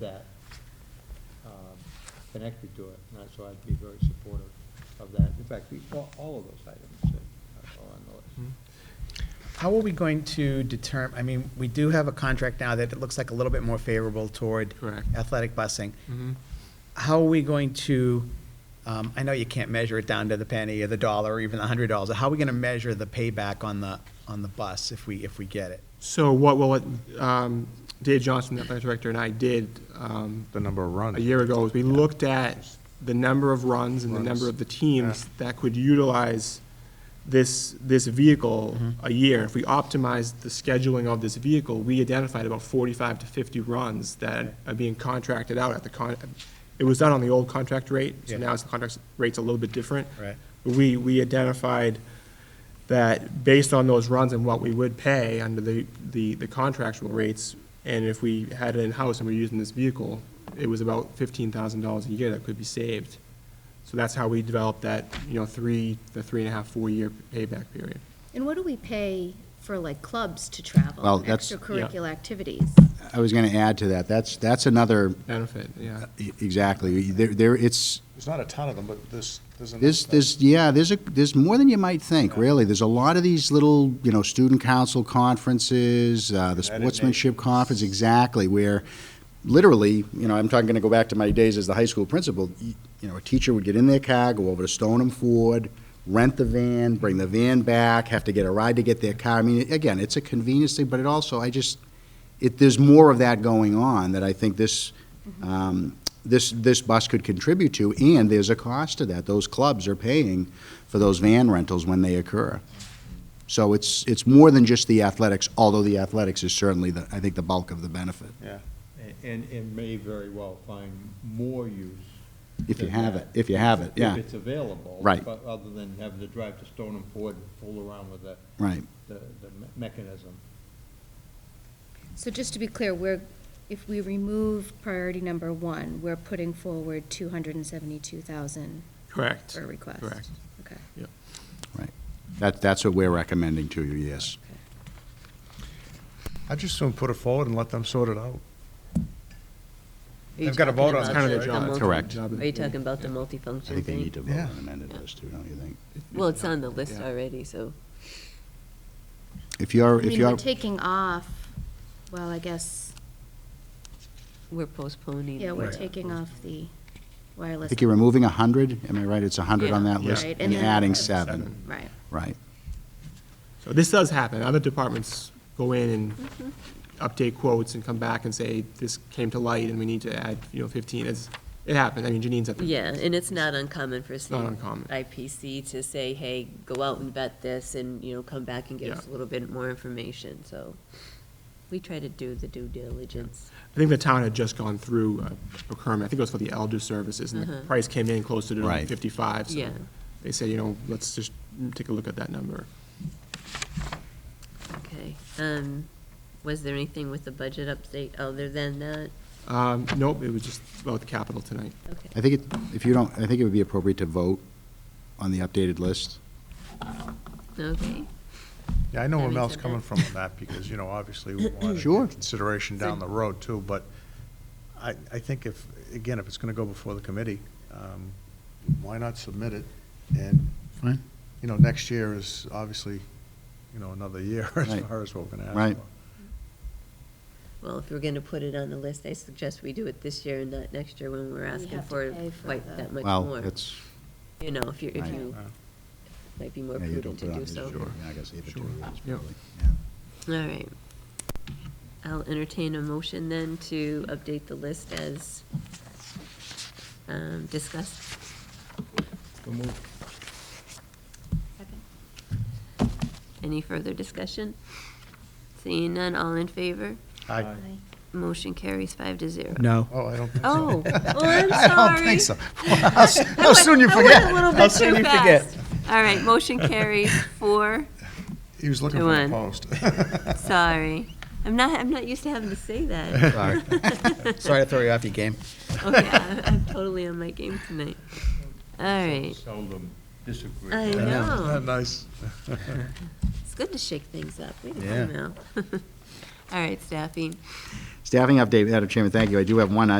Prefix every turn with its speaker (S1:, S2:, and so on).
S1: that um, connected to it, and so I'd be very supportive of that. In fact, we, all all of those items that are on the
S2: Hmm?
S1: list.
S3: How are we going to determine, I mean, we do have a contract now that it looks like a little bit more favorable toward
S2: Correct.
S3: athletic busing.
S2: Mm-hmm.
S3: How are we going to, um, I know you can't measure it down to the penny or the dollar or even the hundred dollars. How are we going to measure the payback on the, on the bus if we, if we get it?
S2: So what will, it- um, Dave Johnson, the athletic director, and I did um,
S4: the number of
S2: a
S4: runs.
S2: year ago is we looked at the number of runs and the number
S4: Runs.
S2: of the teams that could utilize this, this vehicle
S4: Mm-hmm.
S2: a year. If we optimized the scheduling of this vehicle, we identified about forty-five to fifty runs that are being contracted out at the con, it was done on the old contract rate, so
S3: Yeah.
S2: now it's, the contract rate's a little bit different.
S3: Right.
S2: We, we identified that based on those runs and what we would pay under the, the, the contractual rates, and if we had it in-house and we're using this vehicle, it was about fifteen thousand dollars a year that could be saved. So that's how we developed that, you know, three, the three and a half, four-year payback period.
S5: And what do we pay for like clubs to travel?
S6: Well,
S5: and
S6: that's-
S5: Extracurricular activities?
S6: I was going to add to that, that's, that's another,
S2: Benefit,
S7: Uh,
S2: yeah.
S6: e- exactly, there, there, it's,
S4: There's not a ton of them, but this, there's enough.
S6: there's, there's, yeah, there's a, there's more than you might think, really. There's a lot of these little, you know, student council conferences, uh, the
S4: United
S6: sportsmanship
S4: Nations.
S6: conference, exactly, where literally, you know, I'm talking, going to go back to my days as the high school principal, you you know, a teacher would get in their car, go over to Stoneham Ford, rent the van, bring the van back, have to get a ride to get their car. I mean, again, it's a convenience thing, but it also, I just, it, there's more of that going on that I think this,
S4: Mm-hmm.
S6: um, this, this bus could contribute to, and there's a cost to that. Those clubs are paying for those van rentals when they occur. So it's, it's more than just the athletics, although the athletics is certainly the, I think, the bulk of the benefit,
S4: Yeah,
S1: A- And it may very well find more use.
S6: if you
S1: than
S6: have
S1: that,
S6: it, if you have it, yeah,
S1: If it's available.
S6: Right.
S1: But other than having to drive to Stone and Ford and fool around with the,
S6: right.
S1: the the me- mechanism.
S5: So just to be clear, we're, if we remove priority number one, we're putting forward two hundred and seventy-two thousand
S2: Correct.
S5: for a request?
S2: Correct.
S5: Okay.
S6: That, that's what we're recommending to you, yes.
S4: I just soon put it forward and let them sort it out.
S7: Are you
S4: They've got a vote
S7: talking
S4: on
S7: about
S4: it.
S2: Kind of their
S7: the-
S2: job.
S7: the multi-
S6: Correct.
S7: Are you talking about the multifunction
S6: I think they
S7: thing?
S6: need to vote
S4: Yeah.
S6: on amended this too, don't you think?
S7: Well, it's on the list
S2: Yeah.
S7: already, so.
S6: If you're,
S5: I
S6: if
S5: mean, we're
S6: you're,
S5: taking off, well, I guess,
S7: We're postponing.
S5: yeah, we're
S7: the-
S5: taking off the
S6: I
S5: wireless.
S6: think you're removing a hundred, am I right? It's a hundred on
S7: Yeah.
S6: that list,
S5: Right, and
S6: and
S5: then-
S6: adding seven,
S5: Right.
S6: right.
S2: So this does happen. Other departments go in and
S7: Mm-hmm.
S2: update quotes and come back and say, this came to light and we need to add, you know, fifteen. It's, it happened. I mean, Janine's at the.
S7: Yeah, and it's not uncommon for.
S2: not
S7: say,
S2: uncommon.
S7: IPC to say, hey, go out and vet this and, you know, come back and give
S2: Yeah.
S7: us a little bit more information, so. We try to do the due diligence.
S2: I think the town had just gone through a procurement, I think it was for the elder services, and the price came in closer to
S6: Right.
S2: fifty-five, so
S7: Mm-hmm. Yeah.
S2: they said, you know, let's just take a look at that number.
S7: Okay, um, was there anything with the budget update other than that?
S2: Um, nope, it was just about the capital tonight.
S7: Okay.
S6: I think it, if you don't, I think it would be appropriate to vote on the updated list.
S7: Okay,
S4: Yeah, I know
S7: That
S4: where
S7: makes
S4: Mel's
S7: it
S4: coming
S7: better.
S4: from on that, because, you know, obviously, we want to
S6: Sure.
S4: get consideration down the road, too, but I, I think if, again, if it's going to go before the committee, um, why not submit it? And,
S6: Fine.
S4: you know, next year is obviously, you know, another year as
S6: Right.
S4: far as we're going to ask for.
S6: Right.
S7: well, if we're gonna put it on the list, I suggest we do it this year and not next year when we're asking
S5: have to
S7: for
S5: pay for
S7: quite
S5: the-
S7: that much more.
S6: Well, it's,
S7: You know, if you, if
S6: Right.
S7: you, might be more
S6: yeah, you don't
S7: prudent
S6: put it
S7: to
S6: on,
S7: do
S6: this
S7: so.
S6: year. Yeah, I guess either two years,
S2: Yep.
S6: probably.
S7: All right. I'll entertain a motion then to update the list as um, discussed. Any further discussion? Seeing none, all in favor?
S4: I,
S7: Motion carries five to zero.
S3: No.
S4: oh, I don't,
S7: Oh, well, I'm sorry.
S4: I don't think so. How s- how soon you
S7: I went-
S4: forget?
S7: I went a little
S4: How
S7: bit
S4: soon
S7: too
S4: you forget?
S7: fast. All right, motion carries four,
S4: He was looking
S7: To
S4: for a
S7: one.
S4: post.
S7: sorry. I'm not, I'm not used to having to say that.
S3: Sorry. Sorry to throw you off your game.
S7: Okay, I- I'm totally on my game tonight. All right.
S1: Seldom disagree.
S7: I
S4: Isn't that
S7: know.
S4: nice?
S7: It's good to shake things up. Wait a
S3: Yeah.
S7: minute now. All right, staffing.
S6: Staffing update, Madam Chairman, thank you. I do have one.